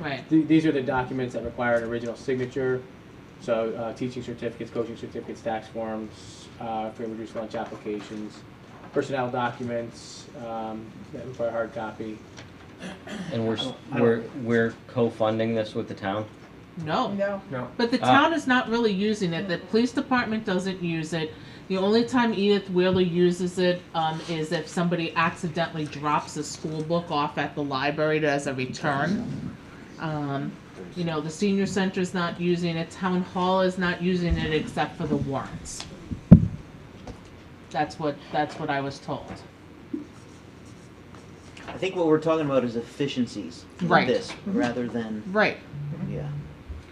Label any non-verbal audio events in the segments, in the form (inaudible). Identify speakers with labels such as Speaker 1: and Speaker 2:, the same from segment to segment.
Speaker 1: Right.
Speaker 2: Th- These are the documents that require an original signature, so uh, teaching certificates, coaching certificates, tax forms, uh, free and reduced lunch applications, personnel documents um, that require hard copy.
Speaker 3: And we're, s-
Speaker 4: I don't-
Speaker 3: we're, we're co-funding this with the town?
Speaker 1: No.
Speaker 4: No.
Speaker 2: No.
Speaker 1: But the
Speaker 3: Ah.
Speaker 1: town is not really using it. The police department doesn't use it. The only time Edith Wheeler uses it um, is if somebody accidentally drops a school book off at the library as a return. Um, you know, the senior center is not using it. Town hall is not using it except for the warrants. That's what that's what I was told.
Speaker 5: I think what we're talking about is efficiencies of
Speaker 1: Right. Mm-hmm.
Speaker 5: this rather than
Speaker 1: Right.
Speaker 5: yeah.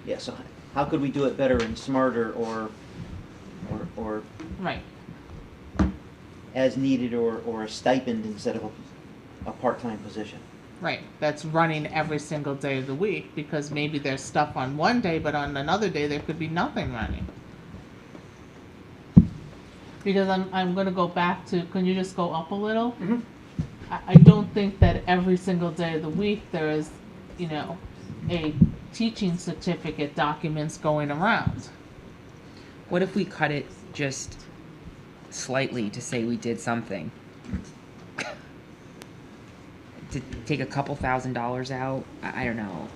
Speaker 5: Yeah, so how could we do it better and smarter or or or
Speaker 1: Right.
Speaker 5: as needed or or a stipend instead of a, a part-time position?
Speaker 1: Right, that's running every single day of the week because maybe there's stuff on one day, but on another day there could be nothing running. Because I'm, I'm gonna go back to, can you just go up a little?
Speaker 2: Mhm.
Speaker 1: I, I don't think that every single day of the week there is, you know, a teaching certificate documents going around.
Speaker 6: What if we cut it just slightly to say we did something? to take a couple thousand dollars out? I, I don't know.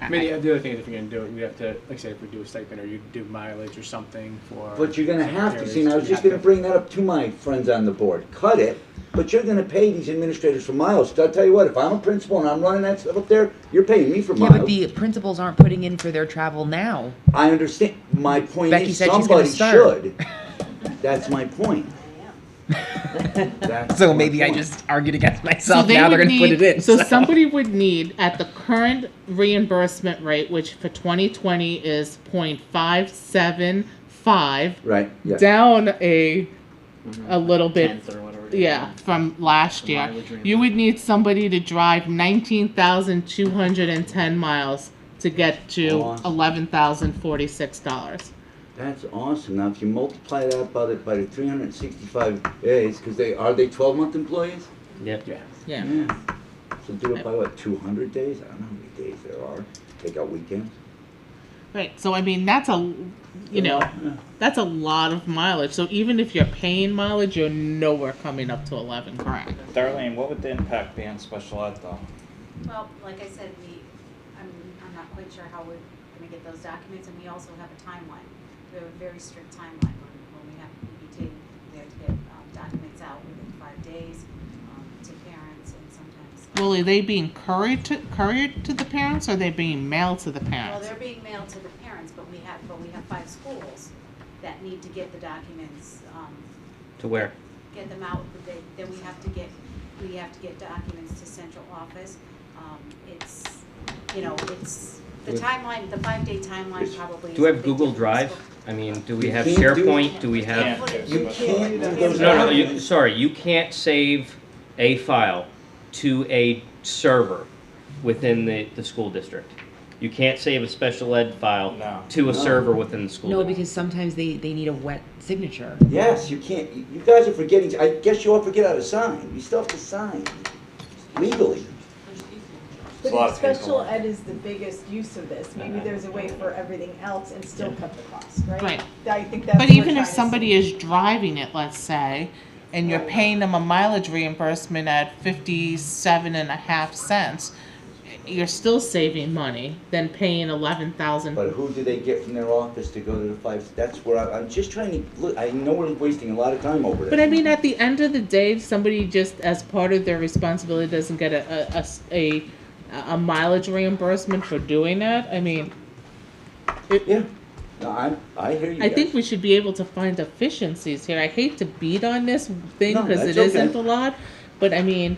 Speaker 6: I-
Speaker 2: I mean,
Speaker 6: I-
Speaker 2: the- the other thing is if you're gonna do it, you have to, like I said, if we do a stipend or you do mileage or something for.
Speaker 4: But you're gonna have to, see, and I was
Speaker 2: secretaries,
Speaker 4: just
Speaker 2: you
Speaker 4: gonna
Speaker 2: have to-
Speaker 4: bring that up to my friends on the board, cut it, but you're gonna pay these administrators for miles, I'll tell you what, if I'm a principal and I'm running that stuff up there, you're paying me for
Speaker 6: yeah, but
Speaker 4: miles.
Speaker 6: the principals aren't putting in for their travel now.
Speaker 4: I understand, my point
Speaker 6: Becky
Speaker 4: is,
Speaker 6: said she's gonna start. (laughs)
Speaker 4: somebody should, that's my point. That's
Speaker 6: So
Speaker 4: my
Speaker 6: maybe I
Speaker 4: point.
Speaker 6: just argued against
Speaker 1: So
Speaker 6: myself.
Speaker 1: they
Speaker 6: now they're
Speaker 1: would
Speaker 6: going to put
Speaker 1: need-
Speaker 6: it in.
Speaker 1: So somebody would need, at the current reimbursement rate, which for 2020 is 0.575,
Speaker 4: Right, yeah,
Speaker 1: down a a little bit.
Speaker 5: Tenth or whatever it is.
Speaker 1: Yeah, from last
Speaker 5: The
Speaker 1: year.
Speaker 5: mileage reimbursement.
Speaker 1: You would need somebody to drive 19,210 miles to get to
Speaker 4: Awesome.
Speaker 1: $11,046.
Speaker 4: that's awesome, now if you multiply that by the, by the three hundred and sixty-five days, cause they, are they twelve-month employees?
Speaker 3: Yep.
Speaker 2: Yeah.
Speaker 1: Yeah.
Speaker 4: Yeah. So do it by what, two hundred days? I don't know how many days there are. Take out weekends.
Speaker 1: Right. So I mean, that's a, you know, that's a lot of mileage. So even if you're paying mileage, you're nowhere coming up to eleven grand.
Speaker 7: Darlene, what would the impact be on special ed though?
Speaker 8: Well, like I said, we, I'm, I'm not quite sure how we're gonna get those documents, and we also have a timeline. We have a very strict timeline when, when we have PBT, we have to get, um, documents out within five days, um, to parents and sometimes. um,
Speaker 1: Well, are they being couriered to, couriered to the parents, or are they being mailed to the
Speaker 8: Well,
Speaker 1: parents?
Speaker 8: they're being mailed to the parents, but we have, but we have five schools that need to get the documents, um,
Speaker 3: To where?
Speaker 8: get them out, but they, then we have to get, we have to get documents to central office. Um, it's, you know, it's, the
Speaker 3: Do-
Speaker 8: timeline, the five-day timeline
Speaker 4: Yes.
Speaker 8: probably is.
Speaker 3: Do we
Speaker 8: a
Speaker 3: have
Speaker 8: big
Speaker 3: Google
Speaker 8: difference,
Speaker 3: Drive?
Speaker 8: but-
Speaker 3: I mean, do we have
Speaker 4: You can't do-
Speaker 3: SharePoint? Do we have?
Speaker 7: Yeah.
Speaker 8: Put it-
Speaker 4: You can't do those.
Speaker 3: No, no, you, sorry, you can't save a file to a server within the, the school district. You can't save a special ed file
Speaker 7: No.
Speaker 3: to a
Speaker 4: No.
Speaker 3: server within the school.
Speaker 6: no,
Speaker 3: district.
Speaker 6: because sometimes they, they need a wet signature.
Speaker 4: Yes, you can't. You you guys are forgetting. I guess you all forget how to sign. You still have to sign legally.
Speaker 7: It's a lot
Speaker 9: But
Speaker 7: of
Speaker 9: if special
Speaker 7: paperwork.
Speaker 9: ed is the biggest use of this, maybe there's a way for everything else and still cut the cost, right?
Speaker 1: Right.
Speaker 9: I think that's
Speaker 1: But
Speaker 9: what we're
Speaker 1: even
Speaker 9: trying
Speaker 1: if
Speaker 9: to see.
Speaker 1: somebody is driving it, let's say, and you're paying them a mileage reimbursement at fifty-seven and a half cents, you're still saving money than paying eleven thousand.
Speaker 4: But who do they get from their office to go to the five? That's where I, I'm just trying to look. I know we're wasting a lot of time over
Speaker 1: But I
Speaker 4: this.
Speaker 1: mean, at the end of the day, if somebody just as part of their responsibility doesn't get a, a- a s- a- a mileage reimbursement for doing that, I mean,
Speaker 4: yeah. No, I I hear you.
Speaker 1: I
Speaker 4: guys.
Speaker 1: think we should be able to find efficiencies here. I hate to beat on this thing
Speaker 4: No,
Speaker 1: because
Speaker 4: that's
Speaker 1: it isn't
Speaker 4: okay.
Speaker 1: a lot, but I mean,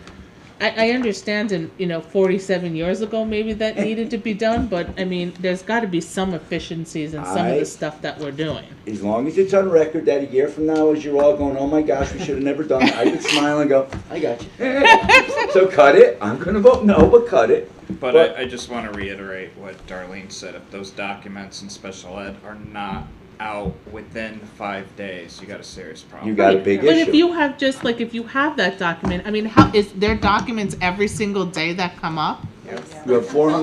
Speaker 1: I, I understand in, you know, forty-seven years ago, maybe
Speaker 4: (laughs)
Speaker 1: that needed to be done, but I mean, there's gotta be some efficiencies in some of
Speaker 4: I-
Speaker 1: the stuff that we're doing.
Speaker 4: as long as it's on record that a year from now, as you're all going, "Oh my gosh, we should have never done it," I could smile and go, "I got you." so cut it. I'm gonna vote no, but cut it.
Speaker 7: But
Speaker 4: But-
Speaker 7: I, I just wanna reiterate what Darlene said, if those documents in special ed are not out within five days, you got a serious problem.
Speaker 4: You got a big
Speaker 1: But
Speaker 4: issue.
Speaker 1: if you have just, like, if you have that document, I mean, how, is there documents every single day that come up?
Speaker 4: you have 400.